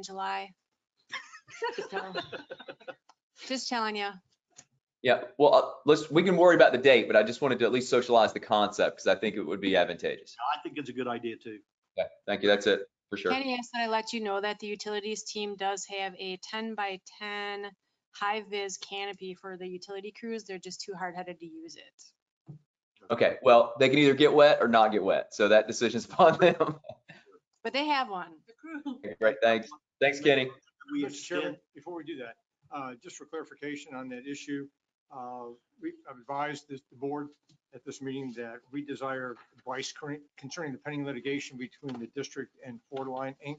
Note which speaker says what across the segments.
Speaker 1: in July. So, Just telling you.
Speaker 2: Yeah, well, uh, let's, we can worry about the date, but I just wanted to at least socialize the concept because I think it would be advantageous.
Speaker 3: I think it's a good idea too.
Speaker 2: Okay, thank you. That's it, for sure.
Speaker 1: Kenny asked that I let you know that the utilities team does have a ten by ten high vis canopy for the utility crews. They're just too hard headed to use it.
Speaker 2: Okay, well, they can either get wet or not get wet, so that decision's upon them.
Speaker 1: But they have one.
Speaker 4: The crew.
Speaker 2: Great, thanks. Thanks, Kenny.
Speaker 5: Mr.
Speaker 3: We
Speaker 5: Chairman,
Speaker 3: extend,
Speaker 5: before we do that, uh, just for clarification on that issue, uh, we advised this the board at this meeting that we desire advice current- concerning the pending litigation between the district and Ford Line Inc.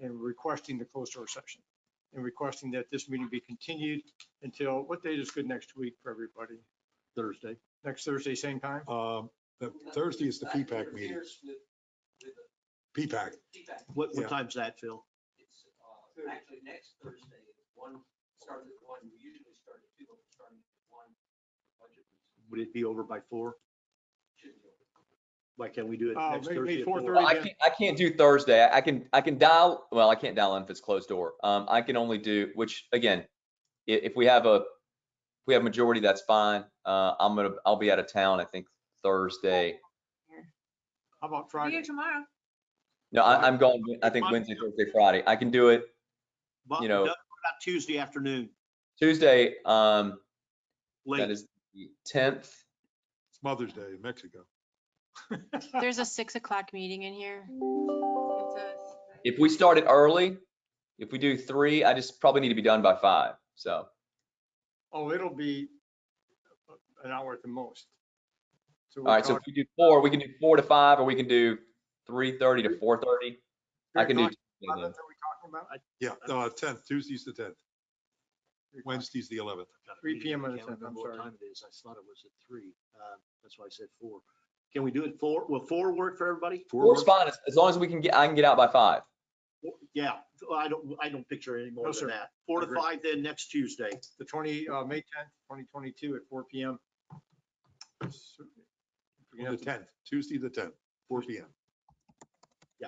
Speaker 5: and requesting the closed door session and requesting that this meeting be continued until, what date is good next week for everybody?
Speaker 3: Thursday.
Speaker 5: Next Thursday, same time?
Speaker 6: Um, the Thursday is the P-PAC meeting. P-PAC.
Speaker 3: What, what
Speaker 6: Yeah.
Speaker 3: time's that, Phil?
Speaker 7: It's, uh, actually next Thursday, it's one, started at one, we usually start at two, but we're starting at one. Budget
Speaker 3: Would it be over by four?
Speaker 7: should be over.
Speaker 3: Why can't we do it
Speaker 5: Uh,
Speaker 3: next
Speaker 5: maybe
Speaker 3: Thursday? at
Speaker 5: 4:30.
Speaker 2: Well, I can't, I can't do Thursday. I I can, I can dial, well, I can't dial in if it's closed door. Um, I can only do, which, again, i- if we have a, if we have majority, that's fine. Uh, I'm gonna, I'll be out of town, I think, Thursday.
Speaker 5: How about
Speaker 4: Be
Speaker 5: Friday?
Speaker 4: here tomorrow.
Speaker 2: No, I, I'm going, I think Wednesday, Thursday, Friday. I can do it
Speaker 3: But
Speaker 2: you know-
Speaker 3: what About Tuesday afternoon,
Speaker 2: Tuesday, um, that
Speaker 3: late.
Speaker 2: is the tenth.
Speaker 6: It's Mother's Day in Mexico.
Speaker 1: There's a six o'clock meeting in here.
Speaker 4: It's a-
Speaker 2: If we started early, if we do three, I just probably need to be done by five. So,
Speaker 5: Oh, it'll be uh, an hour at the most.
Speaker 2: all right. So if we do four, we can do four to five, or we can do three thirty to four thirty. I can do.
Speaker 5: Are we talking about?
Speaker 6: Yeah, no, uh, tenth, Tuesday's the tenth,
Speaker 5: Three o'clock.
Speaker 6: Wednesday's the eleventh.
Speaker 3: Got a
Speaker 5: 3
Speaker 3: meeting,
Speaker 5: PM
Speaker 3: I
Speaker 5: on the
Speaker 3: can't
Speaker 5: 10th, I'm
Speaker 3: remember what
Speaker 5: sorry.
Speaker 3: time it is. I thought it was at three. Uh, That's why I said four. Can we do it four? Will four work for everybody?
Speaker 2: Four's fine, as, as long as we can get, I can get out by five.
Speaker 3: Four- Yeah, I don't, I don't picture any
Speaker 5: No,
Speaker 3: more
Speaker 5: sir.
Speaker 3: than that. Four to
Speaker 5: Agree.
Speaker 3: five then next Tuesday.
Speaker 5: the 20, uh, May 10th, 2022 at 4 PM. So, if we can
Speaker 6: The
Speaker 5: have to-
Speaker 6: tenth, Tuesday, the tenth, four P M.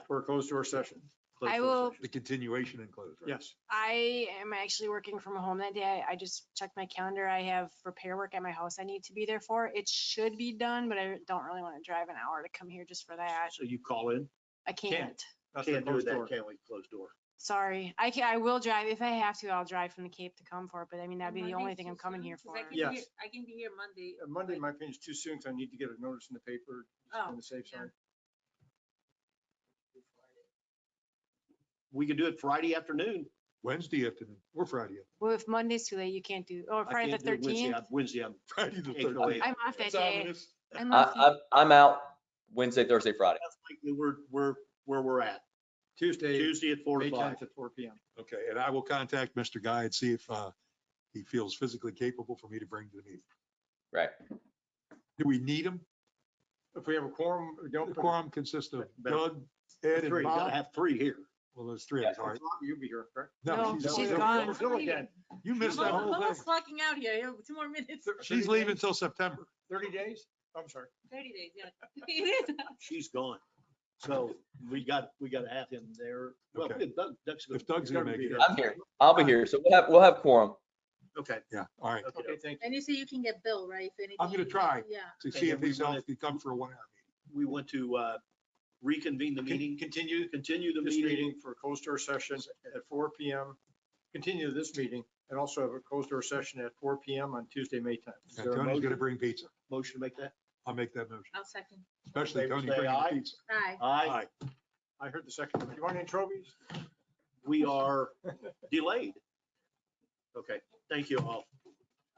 Speaker 5: For a closed door session,
Speaker 3: Close
Speaker 1: I
Speaker 3: the
Speaker 1: will-
Speaker 3: session.
Speaker 6: The continuation and close, right?
Speaker 5: yes.
Speaker 1: I am actually working from home that day. I- I just checked my calendar. I have repair work at my house I need to be there for. It should be done, but I don't really want to drive an hour to come here just for that.
Speaker 3: So you call in.
Speaker 1: I can't.
Speaker 5: That's the
Speaker 3: Can't do
Speaker 5: closed
Speaker 3: that,
Speaker 5: door.
Speaker 3: can't we? Closed door.
Speaker 1: Sorry. I can, I will drive. If I have to, I'll drive from the Cape to come for it, but I mean, that'd be the
Speaker 4: Monday's
Speaker 1: only thing
Speaker 4: too
Speaker 1: I'm coming
Speaker 4: soon,
Speaker 1: here
Speaker 4: 'cause
Speaker 1: for.
Speaker 4: I can be
Speaker 5: Yes.
Speaker 4: here- I can be here Monday.
Speaker 5: Uh, Monday,
Speaker 4: like,
Speaker 5: my opinion's too soon, because I need to get a notice in the paper just
Speaker 4: Oh,
Speaker 5: on the safe
Speaker 4: yeah.
Speaker 5: side.
Speaker 3: We could do it Friday afternoon.
Speaker 6: Wednesday afternoon, or Friday,
Speaker 1: Well, if Monday's too late, you can't do, or
Speaker 3: I
Speaker 1: Friday the
Speaker 3: can't do it Wednesday.
Speaker 1: thirteenth.
Speaker 3: I'm- Wednesday, I'm
Speaker 6: Friday the
Speaker 3: April
Speaker 6: thirteenth.
Speaker 3: eighth.
Speaker 1: I'm off that
Speaker 6: It's
Speaker 1: day.
Speaker 6: ominous.
Speaker 1: I'm
Speaker 2: I,
Speaker 1: off
Speaker 2: I'm, I'm out Wednesday, Thursday, Friday.
Speaker 3: That's likely where, where, where we're at.
Speaker 5: Tuesday,
Speaker 3: Tuesday at four
Speaker 5: May
Speaker 3: to five.
Speaker 5: 10th at 4 PM.
Speaker 6: Okay, and I will contact Mr. Guy and see if, uh, he feels physically capable for me to bring to the meeting.
Speaker 2: Right.
Speaker 6: Do we need him?
Speaker 5: If we have a quorum, we don't.
Speaker 6: The quorum consists of Doug,
Speaker 3: Three,
Speaker 6: Ed, and
Speaker 3: you gotta
Speaker 6: Bob.
Speaker 3: have three here.
Speaker 6: Well, there's three, of us, all right.
Speaker 5: You'll be here, correct?
Speaker 1: No,
Speaker 5: she's
Speaker 1: she's
Speaker 6: over.
Speaker 1: gone.
Speaker 4: I'm
Speaker 5: Go
Speaker 4: leaving.
Speaker 5: again.
Speaker 6: You missed that
Speaker 4: I'm
Speaker 5: Oh,
Speaker 6: whole
Speaker 4: almost
Speaker 6: thing.
Speaker 4: clocking out here. I have Two more minutes,
Speaker 6: She's leaving till September.
Speaker 5: 30 days? I'm sorry.
Speaker 4: thirty days, yeah. It is.
Speaker 3: She's gone. So we got, we gotta have him there. Well,
Speaker 6: Okay.
Speaker 3: Doug, Doug's gonna.
Speaker 6: If Doug's gonna
Speaker 3: be
Speaker 6: make it.
Speaker 3: here.
Speaker 2: I'm here. I'll be here. So we'll have, we'll have quorum.
Speaker 3: Okay.
Speaker 6: Yeah, all right.
Speaker 3: okay.
Speaker 5: Okay, thank you.
Speaker 4: And you say you can get Bill, right? if anything-
Speaker 6: I'm gonna try.
Speaker 4: Yeah.
Speaker 6: To
Speaker 3: Okay,
Speaker 6: see
Speaker 3: then
Speaker 6: if
Speaker 3: we
Speaker 6: these
Speaker 3: wanna-
Speaker 6: elves can come for a one hour
Speaker 3: We want to uh, reconvene the meeting. Continue. Continue the
Speaker 5: This
Speaker 3: meeting.
Speaker 5: meeting for a closed door session at 4 PM. Continue this meeting and also have a closed door session at 4 PM on Tuesday, May 10th. Is there
Speaker 6: meeting.
Speaker 5: a
Speaker 6: And Tony's
Speaker 5: motion?
Speaker 6: gonna bring pizza.
Speaker 3: Motion to make that?
Speaker 6: I'll make that motion,
Speaker 4: I'll second.
Speaker 6: especially
Speaker 3: Favor
Speaker 6: Tony
Speaker 3: say
Speaker 6: bringing the
Speaker 3: aye.
Speaker 6: pizza.
Speaker 4: Aye.
Speaker 3: Aye.
Speaker 5: I heard the second. Do you want any trophies?
Speaker 3: We are delayed. Okay, thank you all.